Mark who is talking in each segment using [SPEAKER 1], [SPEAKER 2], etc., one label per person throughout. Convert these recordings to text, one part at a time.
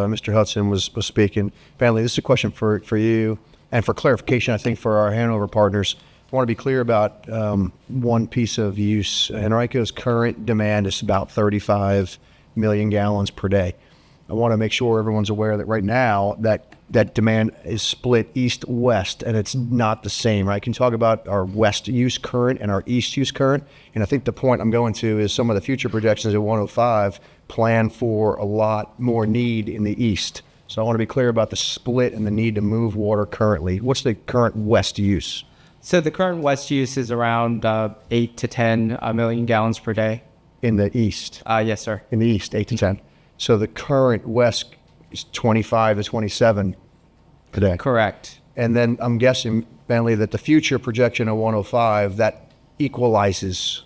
[SPEAKER 1] uh, Mr. Hudson was, was speaking. Family, this is a question for, for you and for clarification, I think, for our Hanover partners. I want to be clear about um, one piece of use. Henrico's current demand is about 35 million gallons per day. I want to make sure everyone's aware that right now that that demand is split east west and it's not the same, right? Can you talk about our west use current and our east use current? And I think the point I'm going to is some of the future projections at 105 plan for a lot more need in the east. So I want to be clear about the split and the need to move water currently. What's the current west use?
[SPEAKER 2] So the current West use is around uh, eight to 10 uh, million gallons per day.
[SPEAKER 1] in the east,
[SPEAKER 2] Uh, yes, sir.
[SPEAKER 1] in the east, eight to ten. So the current west is twenty-five to twenty-seven today.
[SPEAKER 2] Correct.
[SPEAKER 1] And then I'm guessing, Bentley, that the future projection of one oh five, that equalizes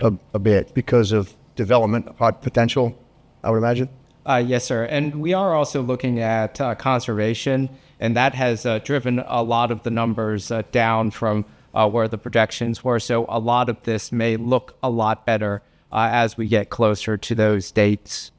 [SPEAKER 1] a, a bit because of development pot- potential, I would imagine.
[SPEAKER 2] Uh, yes, sir. And we are also looking at uh, conservation, and that has uh, driven a lot of the numbers uh, down from uh, where the projections were. So a lot of this may look a lot better uh, as we get closer to those dates.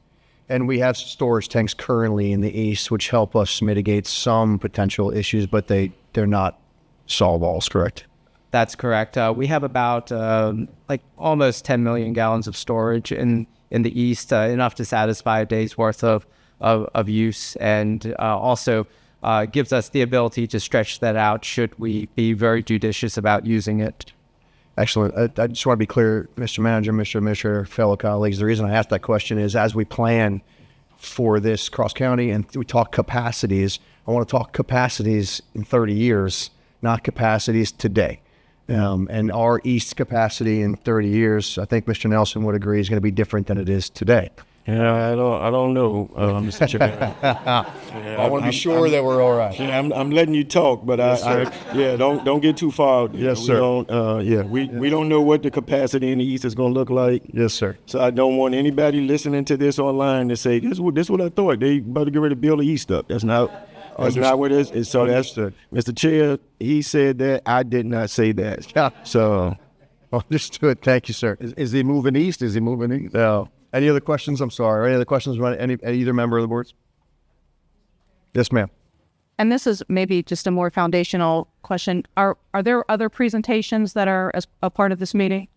[SPEAKER 1] And we have storage tanks currently in the east, which help us mitigate some potential issues, but they, they're not solve alls, correct?
[SPEAKER 2] That's correct. Uh, we have about um, like almost 10 million gallons of storage in in the east, uh, enough to satisfy a day's worth of of, of use, and uh, also uh, gives us the ability to stretch that out should we be very judicious about using it.
[SPEAKER 1] Excellent. Uh, I, I just want to be clear, Mr. Manager, Mr. Administrator, fellow colleagues. The reason I asked that question is as we plan for this cross county and we talk capacities, I want to talk capacities in 30 years, not capacities today. Um, and our East capacity in 30 years, I think Mr. Nelson would agree, is going to be different than it is today.
[SPEAKER 3] Yeah, I don't, I don't know, uh, Mr. Chairman. Yeah,
[SPEAKER 1] I want to
[SPEAKER 3] I'm-
[SPEAKER 1] be sure that we're all right.
[SPEAKER 3] Yeah, I'm, I'm letting you talk, but I, I, yeah, don't, don't get too far. out there.
[SPEAKER 1] Yes,
[SPEAKER 3] We
[SPEAKER 1] sir.
[SPEAKER 3] don't, uh, yeah, we, we don't know what the capacity in the East is gonna look like.
[SPEAKER 1] Yes, sir.
[SPEAKER 3] So I don't want anybody listening to this online to say, this what, this what I thought, they about to get ready to build the East up. That's not, that's
[SPEAKER 1] Understood.
[SPEAKER 3] not what it is. And so that's,
[SPEAKER 1] Understood.
[SPEAKER 3] Mr. Chair, he said that, I did not say that. So,
[SPEAKER 1] Understood. Thank you, sir.
[SPEAKER 4] Is, is he moving east? Is he moving east?
[SPEAKER 1] No. Any other questions? I'm sorry. Any other questions from any, either member of the boards? Yes, ma'am.
[SPEAKER 5] And this is maybe just a more foundational question. Are are there other presentations that are as a part of this meeting?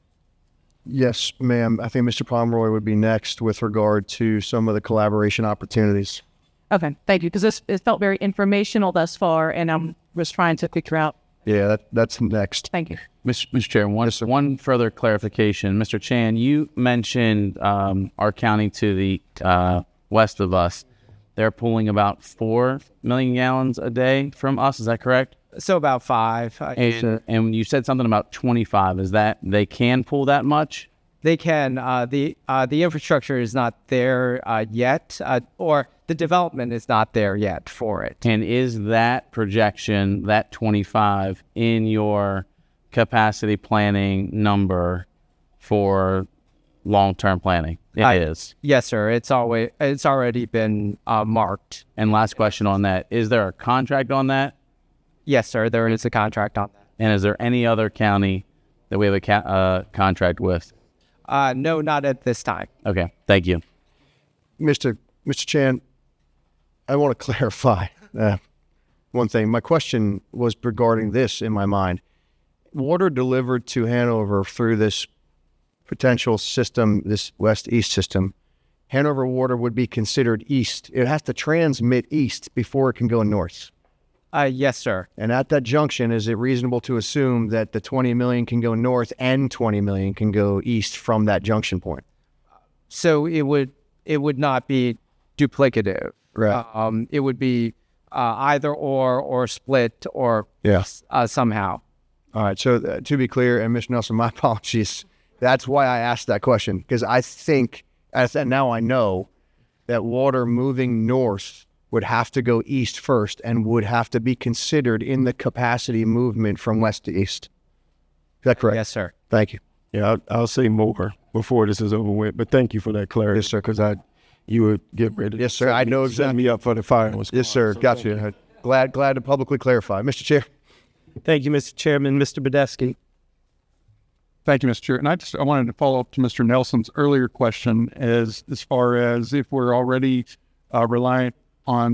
[SPEAKER 1] Yes, ma'am. I think Mr. Pomeroy would be next with regard to some of the collaboration opportunities.
[SPEAKER 5] Okay, thank you, because this it felt very informational thus far, and I'm just trying to figure out.
[SPEAKER 1] Yeah, that, that's next.
[SPEAKER 5] Thank you.
[SPEAKER 6] Mr. Mr. Chair, one, one further clarification. Mr. Chan, you mentioned um, our county to the uh, west of us. They're pulling about 4 million gallons a day from us. Is that correct?
[SPEAKER 2] So about five. uh,
[SPEAKER 6] And, and you said something about 25. Is that they can pull that much?
[SPEAKER 2] They can. Uh, the uh, the infrastructure is not there uh, yet, uh, or the development is not there yet for it.
[SPEAKER 6] And is that projection, that 25, in your capacity planning number for long term planning? It is.
[SPEAKER 2] I- Yes, sir. It's always it's already been uh, marked.
[SPEAKER 6] And last question on that is there a contract on that?
[SPEAKER 2] Yes, sir. There is a contract on that.
[SPEAKER 6] And is there any other county that we have a ca- uh, contract with?
[SPEAKER 2] Uh, no, not at this time.
[SPEAKER 6] Okay, thank you.
[SPEAKER 1] Mr. Mr. Chan, I want to clarify uh, one thing. My question was regarding this in my mind. Water delivered to Hanover through this potential system, this west east system, Hanover water would be considered east. It has to transmit east before it can go north.
[SPEAKER 2] Uh, yes, sir.
[SPEAKER 1] And at that junction, is it reasonable to assume that the 20 million can go north and 20 million can go east from that junction point?
[SPEAKER 2] So it would it would not be duplicative.
[SPEAKER 1] Right.
[SPEAKER 2] Um, it would be uh, either or or split or
[SPEAKER 1] Yeah.
[SPEAKER 2] uh, somehow.
[SPEAKER 1] All right. So uh, to be clear, and Mr. Nelson, my apologies. That's why I asked that question because I think, as and now I know, that water moving north would have to go east first and would have to be considered in the capacity movement from west to east. Is that correct?
[SPEAKER 2] Yes, sir.
[SPEAKER 1] Thank you.
[SPEAKER 3] yeah, I'll, I'll say more before this is over with, but thank you for that clarity.
[SPEAKER 1] Yes, sir.
[SPEAKER 3] Cause I, you would get ready. to
[SPEAKER 1] Yes, sir. I know
[SPEAKER 3] Set
[SPEAKER 1] exactly.
[SPEAKER 3] me up for the firing.
[SPEAKER 1] Yes, sir. Got you. Glad, glad to publicly clarify, Mr. Chair.
[SPEAKER 7] Thank you, Mr. Chairman. Mr. Badesky.
[SPEAKER 8] Thank you, Mr. Chair. And I just I wanted to follow up to Mr. Nelson's earlier question as as far as if we're already uh, reliant on